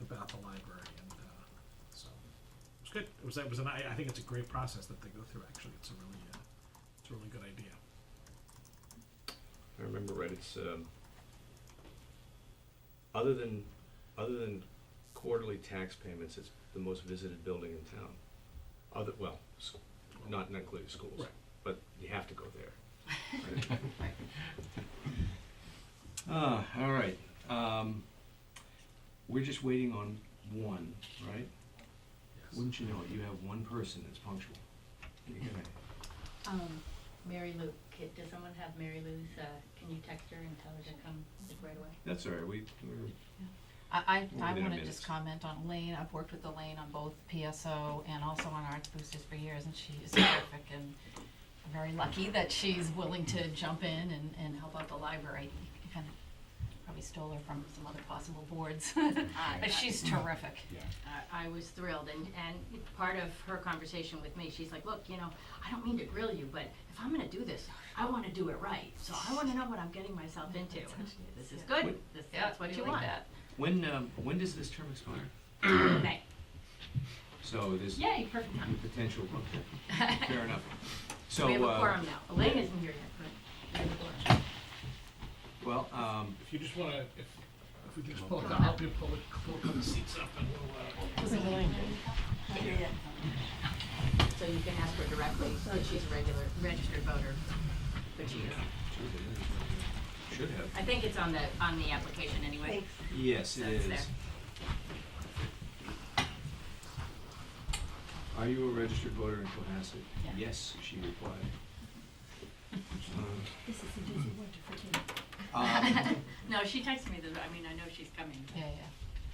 uh, It was it was an I, I think it's a great process that they go through. Actually, it's a really uh, it's a really good idea. I remember right. It's um, other than other than quarterly tax payments, it's the most visited building in town. Other well, s- not not including schools, Right. but you have to go there. Ah, all right. Um, we're just waiting on one, right? Yes. Wouldn't you know it? You have one person that's punctual. You're gonna- Um, Mary Lou, kid, does someone have Mary Lou's, uh, can you text her and tell her to come like, right away? That's all right. We we're, I, We'll I, I be there in wanna minutes. just comment on Elaine, I've worked with Elaine on both PSO and also on Arts Boosters for years, and she is terrific, and I'm very lucky that she's willing to jump in and, and help out the library. You Kind of probably stole her from some other possible boards, but she's terrific. I, I was thrilled, and, and part of her conversation with me, she's like, look, you know, I don't mean to grill you, but if I'm gonna do this, I wanna do it right, so I wanna know what I'm getting myself into. This is good, this, that's what We you like want. that. when um, when does this term expire? Right. So there's Yay, perfect time. potential. Okay, fair enough. So We have a uh, quorum now, Elaine isn't here yet, but we have a quorum. well, um, If you just want to, if if we can just pull up, the- help you pull, it, pull the seats up and we'll. Uh, So you can ask her directly, because she's a regular, registered voter, but she is. should have- should have. I think it's on the, on the application anyway. Yes, it So it's is. there. Are you a registered voter in Cohasset? Yeah. Yes, she replied. This is an easy one to forget. Um, No, she texted me, that I mean, I know she's coming. Yeah, yeah,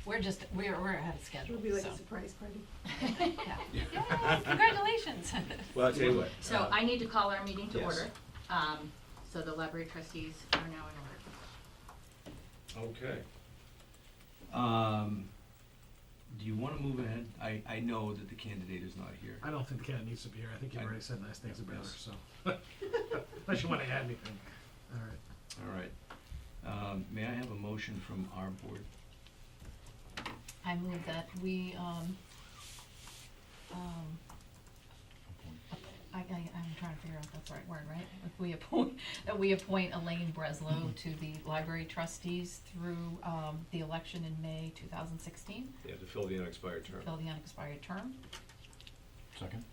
we're just, we're, we're ahead of It'll schedule, be like so, a surprise party. yeah. Yay, Congratulations. Well, I tell you what. So Uh, I need to call our meeting to Yes. order. Um, So the library trustees are now in order. Okay. Um, do you wanna move ahead? I, I know that the candidate is not here. I don't think Ken needs to be here. I think you I- already said nice things about her. Yes. So unless you want to add anything, all right. All right. Um, may I have a motion from our board? I move that we, um, um, I, I, I'm trying to figure out if that's the right word, right? If we appoint, that we appoint Elaine Breslow to the library trustees through, um, the election in May two thousand sixteen, Yeah, to fill the unexpired term. fill the unexpired term. Second?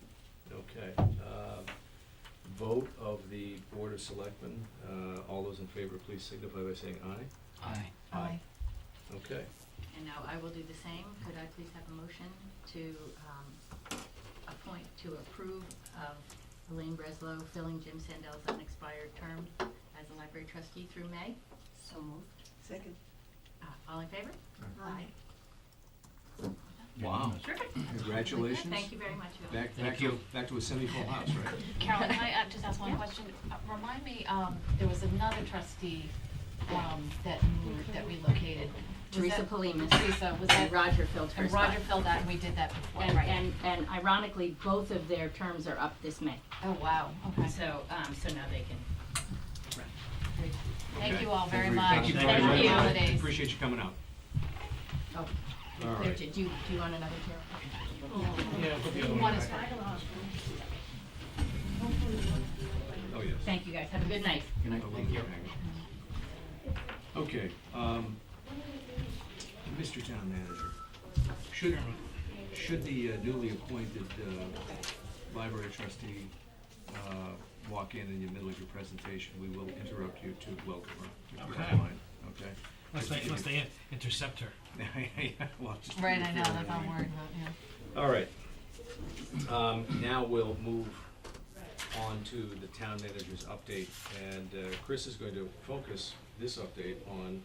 Okay. Uh, vote of the Board of Selectmen. Uh, all those in favor, please signify by saying aye. Aye. Aye. Okay. And now I will do the same. Could I please have a motion to um, appoint, to approve of Elaine Breslow filling Jim Sandel's unexpired term as a library trustee through May? So moved. Second. Uh, All in favor? Aye. Wow. Terrific. Congratulations. Thank you very much. Bill. Back, back to, back to a semi-full house, right? Carolyn, can I uh, just ask one question? Uh, Remind me, um, there was another trustee, um, that moved, that relocated. Was Teresa that- Polimas. Teresa, was that? And Roger filled her And Roger spot. filled that, and we did that before, And, right? and, and ironically, both of their terms are up this May. Oh, wow, okay. So, um, so now they can run. Thank Okay. you all very much. Thank you Thank very much. you. Holidays. Appreciate you coming out. Oh, All there, right. do do you, do you want another chair? One is- Oh, yes. Thank you guys, have a good night. Good night, thank you. Okay, um, Mr. Town Manager, should, should the uh, newly appointed, uh, library trustee, uh, walk in in the middle of your presentation, we will interrupt you to welcome her, if you Okay. don't mind, okay? Unless they, unless they intercept her. Well, just to be Right, I know, fair, that's what I'm worried about, yeah. All right. Um, now we'll move on to the town manager's update, and uh, Chris is going to focus this update on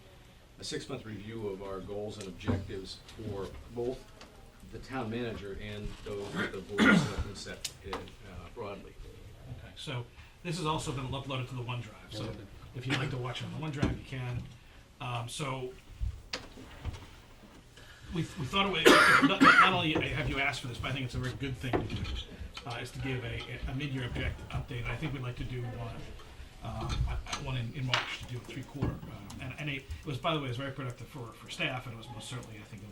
a six-month review of our goals and objectives for both the town manager and those that the board of selectmen set uh, broadly. Okay, so this has also been uploaded to the OneDrive, so if you'd like to watch it on the OneDrive, you can. Um, so we, we thought it would, not, not only have you asked for this, but I think it's a very good thing to do, uh, is to give a, a mid-year object update. I think we'd like to do one, uh, one in, in March to do a three-quarter. Uh, and and it, it was, by the way, it was very productive for, for staff, and it was most certainly, I think,